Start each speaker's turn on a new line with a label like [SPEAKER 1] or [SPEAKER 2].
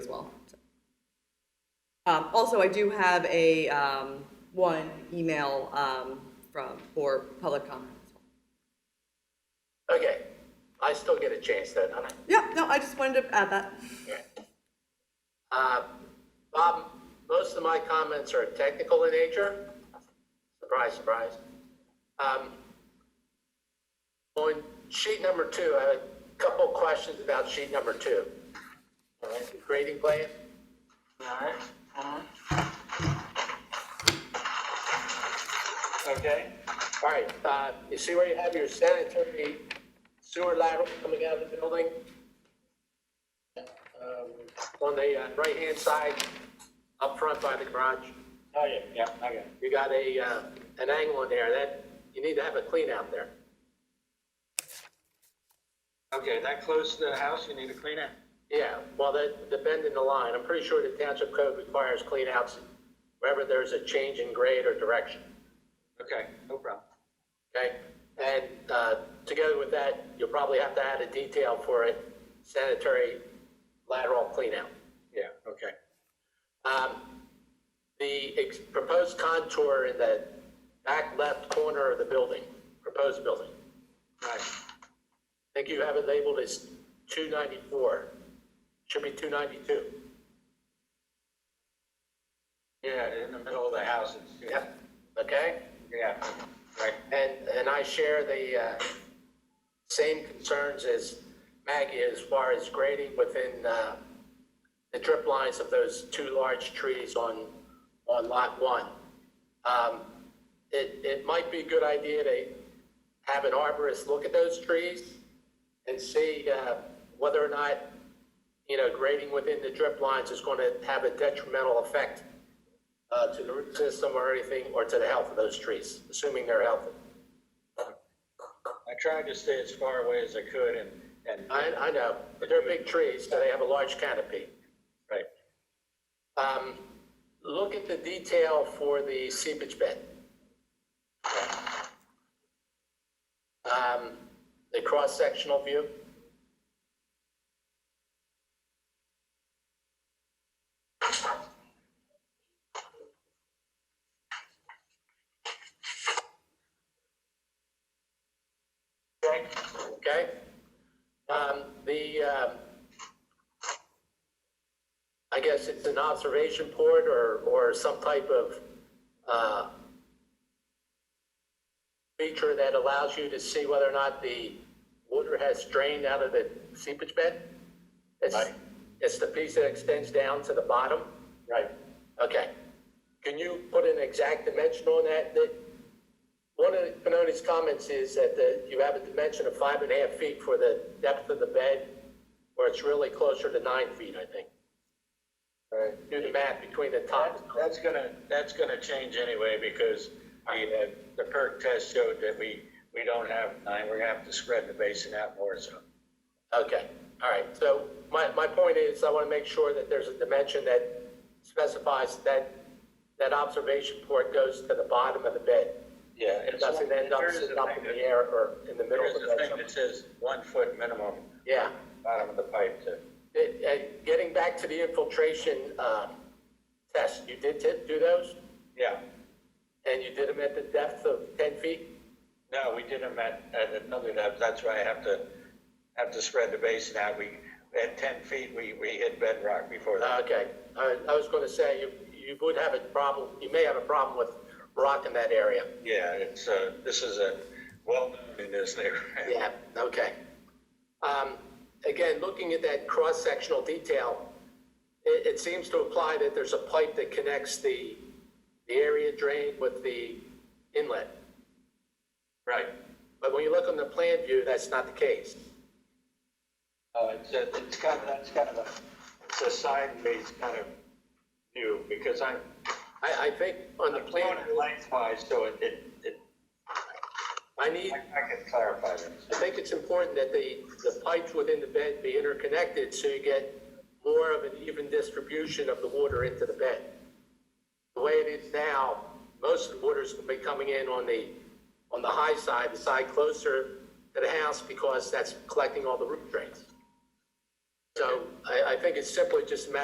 [SPEAKER 1] well. so. Um, also, I do have a, um, one email, um, from, for public comment as well.
[SPEAKER 2] Okay, I still get a chance then, don't I?
[SPEAKER 1] Yeah, no, I just wanted to add that.
[SPEAKER 2] Uh, Bob, most of my comments are technical in nature. Surprise, surprise. Um, On sheet number two, I have a couple questions about sheet number two. All right, the grading plan? All right, all right. Okay, all right, uh, you see where you have your sanitary sewer lateral coming out of the building? um, on the uh, right-hand side, up front by the garage.
[SPEAKER 3] Oh, yeah, yeah, okay.
[SPEAKER 2] You got a, uh, an angle in there that, you need to have a clean out there.
[SPEAKER 3] Okay, that close to the house, you need to clean it?
[SPEAKER 2] Yeah, well, the, the bend in the line, I'm pretty sure the township code requires clean outs wherever there's a change in grade or direction,
[SPEAKER 3] Okay, no problem.
[SPEAKER 2] okay? And uh, together with that, you'll probably have to add a detail for a sanitary lateral clean out.
[SPEAKER 3] Yeah, okay.
[SPEAKER 2] Um, The ex- proposed contour in the back left corner of the building, proposed building,
[SPEAKER 3] Right,
[SPEAKER 2] I think you have it labeled as 294, should be 292.
[SPEAKER 3] yeah, in the middle of the houses.
[SPEAKER 2] Yep. Okay?
[SPEAKER 3] Yeah, right,
[SPEAKER 2] And, and I share the uh, same concerns as Maggie as far as grading within uh, the drip lines of those two large trees on, on lot one. Um, It, it might be a good idea to have an arborist look at those trees and see uh, whether or not, you know, grading within the drip lines is going to have a detrimental effect uh, to the root system or anything, or to the health of those trees, assuming they're healthy.
[SPEAKER 3] I tried to stay as far away as I could and, and,
[SPEAKER 2] I, I know, but they're big trees, so they have a large canopy.
[SPEAKER 3] right,
[SPEAKER 2] Um, Look at the detail for the seepage bed. Um, The cross-sectional view. Okay? Um, The, um, I guess it's an observation port or, or some type of, uh, feature that allows you to see whether or not the water has drained out of the seepage bed? It's,
[SPEAKER 3] Right.
[SPEAKER 2] it's the piece that extends down to the bottom?
[SPEAKER 3] right.
[SPEAKER 2] Okay. Can you put an exact dimension on that? That, one of Panoni's comments is that the, you have a dimension of five and a half feet for the depth of the bed, where it's really closer to nine feet, I think.
[SPEAKER 3] Right.
[SPEAKER 2] Do the math between the top.
[SPEAKER 3] That- That's gonna, that's gonna change anyway, because the, uh, the perk test showed that we, we don't have nine, we're gonna have to spread the basin out more, so.
[SPEAKER 2] Okay, all right. So my, my point is, I want to make sure that there's a dimension that specifies that, that observation port goes to the bottom of the bed.
[SPEAKER 3] Yeah.
[SPEAKER 2] It doesn't end up
[SPEAKER 3] There is a
[SPEAKER 2] sitting up in
[SPEAKER 3] thing that-
[SPEAKER 2] the air or in the middle
[SPEAKER 3] There
[SPEAKER 2] of
[SPEAKER 3] is
[SPEAKER 2] the
[SPEAKER 3] a
[SPEAKER 2] bed.
[SPEAKER 3] thing that says one foot minimum,
[SPEAKER 2] Yeah.
[SPEAKER 3] bottom of the pipe to.
[SPEAKER 2] It- uh, Getting back to the infiltration uh, test, you did t- do those?
[SPEAKER 3] Yeah,
[SPEAKER 2] And you did them at the depth of 10 feet?
[SPEAKER 3] no, we did them at, at another, depth. that's why I have to, have to spread the basin out. We, at ten feet, we, we hit bedrock before that.
[SPEAKER 2] Okay, I I was going to say, you you would have a problem, you may have a problem with rock in that area.
[SPEAKER 3] Yeah, it's, uh, this is a, well, in this neighborhood.
[SPEAKER 2] Yeah, okay. Um, Again, looking at that cross-sectional detail, it, it seems to imply that there's a pipe that connects the, the area drain with the inlet.
[SPEAKER 3] Right.
[SPEAKER 2] But when you look on the plan view, that's not the case.
[SPEAKER 3] Oh, it's, a- it's kind of, that's kind of a, it's a sideways kind of view, because I'm,
[SPEAKER 2] I, I think on the
[SPEAKER 3] I'm going
[SPEAKER 2] plan,
[SPEAKER 3] it lengthwise, so it, it, it,
[SPEAKER 2] I need,
[SPEAKER 3] I I can clarify this.
[SPEAKER 2] I think it's important that the, the pipes within the bed be interconnected so you get more of an even distribution of the water into the bed. The way it is now, most of the water's gonna be coming in on the, on the high side, the side closer to the house because that's collecting all the root drains. So I, I think it's simply just a matter